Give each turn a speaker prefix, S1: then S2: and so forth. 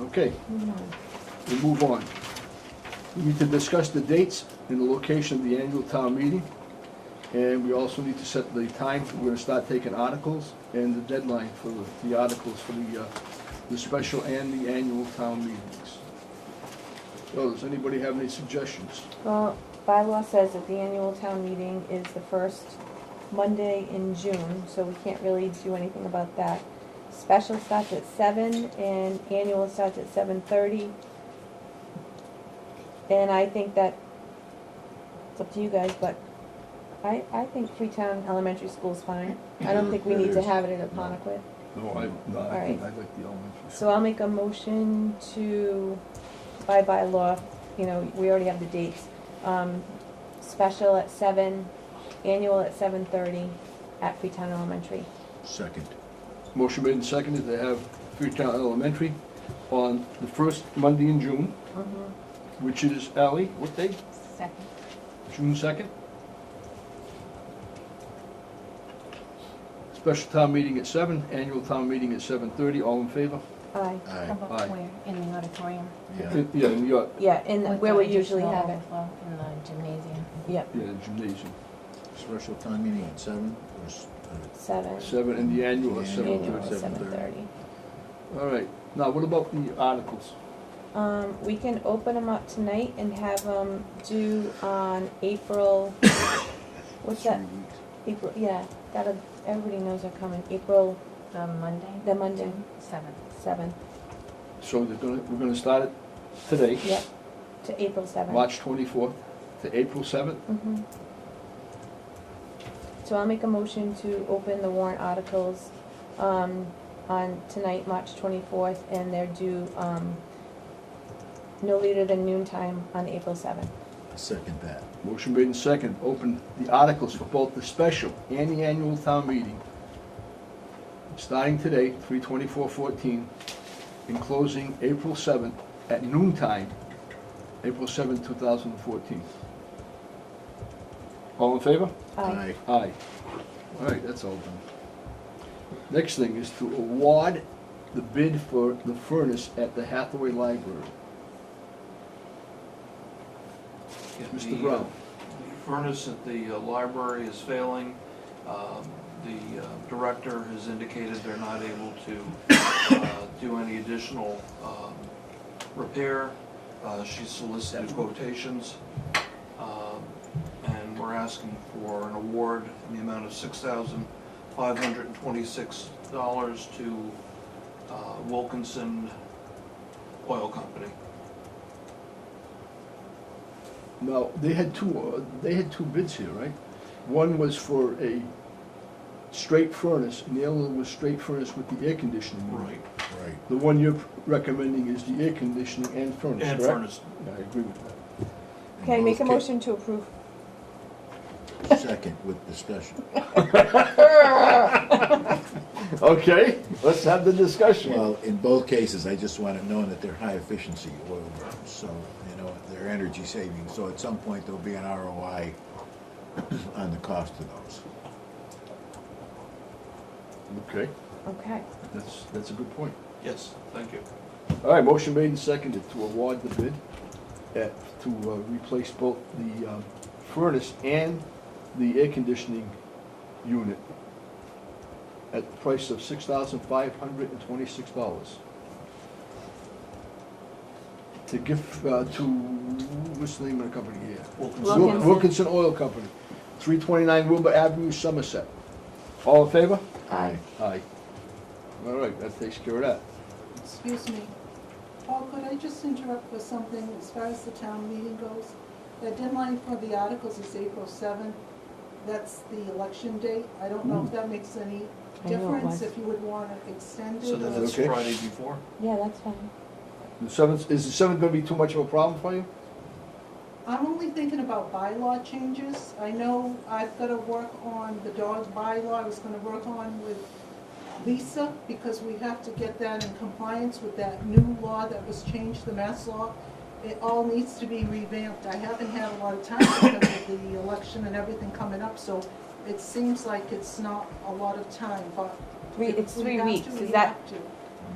S1: Okay, we move on. We need to discuss the dates and the location of the annual town meeting. And we also need to set the time, we're gonna start taking articles and the deadline for the- the articles for the, uh, the special and the annual town meetings. So, does anybody have any suggestions?
S2: Well, bylaw says that the annual town meeting is the first Monday in June, so we can't really do anything about that. Special starts at seven and annual starts at seven thirty. And I think that, it's up to you guys, but I, I think Freetown Elementary School's fine. I don't think we need to have it at Aponequid.
S1: No, I, no,
S2: All
S1: I
S2: right.
S1: think I like the elementary.
S2: So I'll make a motion to, by bylaw, you know, we already have the dates. Um, special at seven, annual at seven thirty at Freetown Elementary.
S3: Second.
S1: Motion made and seconded to have Freetown Elementary on the first Monday in June, which is, Ally, what day?
S2: Second.
S1: June second. Special town meeting at seven, annual town meeting at seven thirty, all in favor?
S2: Aye.
S3: Aye.
S1: Aye.
S4: About where, in the auditorium?
S3: Yeah.
S1: Yeah, in your,
S2: Yeah, and
S4: With
S2: where
S4: the
S2: we usually
S4: additional
S2: have it.
S4: overflow In the gymnasium.
S2: Yeah,
S1: yeah, gymnasium,
S3: Special time meeting at seven uh, or s-
S2: seven.
S1: seven, and the annual at
S3: Annual.
S1: seven
S2: Annual
S1: thirty.
S2: at seven
S3: 7:30.
S2: thirty.
S1: All right, now what about the articles?
S2: Um, we can open them up tonight and have them due on April, what's that?
S3: three weeks?
S2: April, yeah, that'll, everybody knows they're coming, April,
S4: The Monday?
S2: the Monday,
S4: Seventh.
S2: seventh.
S1: So they're gonna, we're gonna start it today.
S2: Yep, to April seventh.
S1: March twenty-fourth to April seventh.
S2: Mhm. So I'll make a motion to open the warrant articles, um, on tonight, March twenty-fourth, and they're due, um, no later than noon time on April seventh.
S3: I Second that.
S1: Motion made in second, open the articles for both the special and the annual town meeting, starting today, three twenty-four fourteen, and closing April seventh at noon time, April seventh, two thousand and fourteen. All in favor?
S2: Aye.
S1: Aye. All right, that's all done. Next thing is to award the bid for the furnace at the Hathaway Library.
S5: Yeah, the,
S1: Mr.
S5: uh,
S1: Brown,
S5: The furnace at the uh, library is failing. Um, The uh, director has indicated they're not able to uh, do any additional um, repair. Uh, She solicited quotations, um, and we're asking for an award in the amount of $6,526 to uh, Wilkinson Oil Company.
S1: now, they had two, uh, they had two bids here, right? One was for a straight furnace, and the other one was straight furnace with the air conditioning. unit.
S3: Right.
S1: The one you're recommending is the air conditioning and furnace,
S5: And
S1: correct?
S5: furnace,
S1: I agree with that.
S2: Can I
S3: In
S2: make a
S3: both
S2: motion to approve?
S3: ca- Second with discussion.
S1: Okay, let's have the discussion.
S3: Well, in both cases, I just want it known that they're high efficiency oil burns, so, you know, they're energy saving. So at some point, there'll be an ROI on the cost of those.
S1: Okay,
S2: Okay,
S1: that's, that's a good point.
S5: yes, thank you.
S1: All right, motion made and seconded to award the bid at, to uh, replace both the um, furnace and the air conditioning unit at the price of six thousand five hundred and twenty-six dollars. To give, uh, to, what's the name of the company here?
S5: Wilkinson.
S1: Wil-
S2: Wilkinson.
S1: Wilkinson Oil Company, three twenty-nine Wilbur Avenue, Somerset. All in favor?
S2: Aye.
S1: Aye. All right, that takes care of that.
S6: Excuse me. Paul, could I just interrupt with something as far as the town meeting goes? The deadline for the articles is April seventh. That's the election date. I don't know if that makes any
S2: Mm. I know it was.
S6: difference, if you would want to extend it.
S5: So then
S6: or-
S5: it's
S1: Okay.
S5: Friday before?
S2: yeah, that's fine.
S1: The seventh, is the seventh gonna be too much of a problem for you?
S6: I'm only thinking about bylaw changes. I know I've got to work on the dog bylaw. I was going to work on with Lisa because we have to get that in compliance with that new law that was changed, the mass law. It all needs to be revamped. I haven't had a lot of time because of the election and everything coming up, so it seems like it's not a lot of time, but.
S2: Three, it's
S6: if we
S2: three
S6: have to,
S2: weeks,
S6: we
S2: is that,
S6: have to.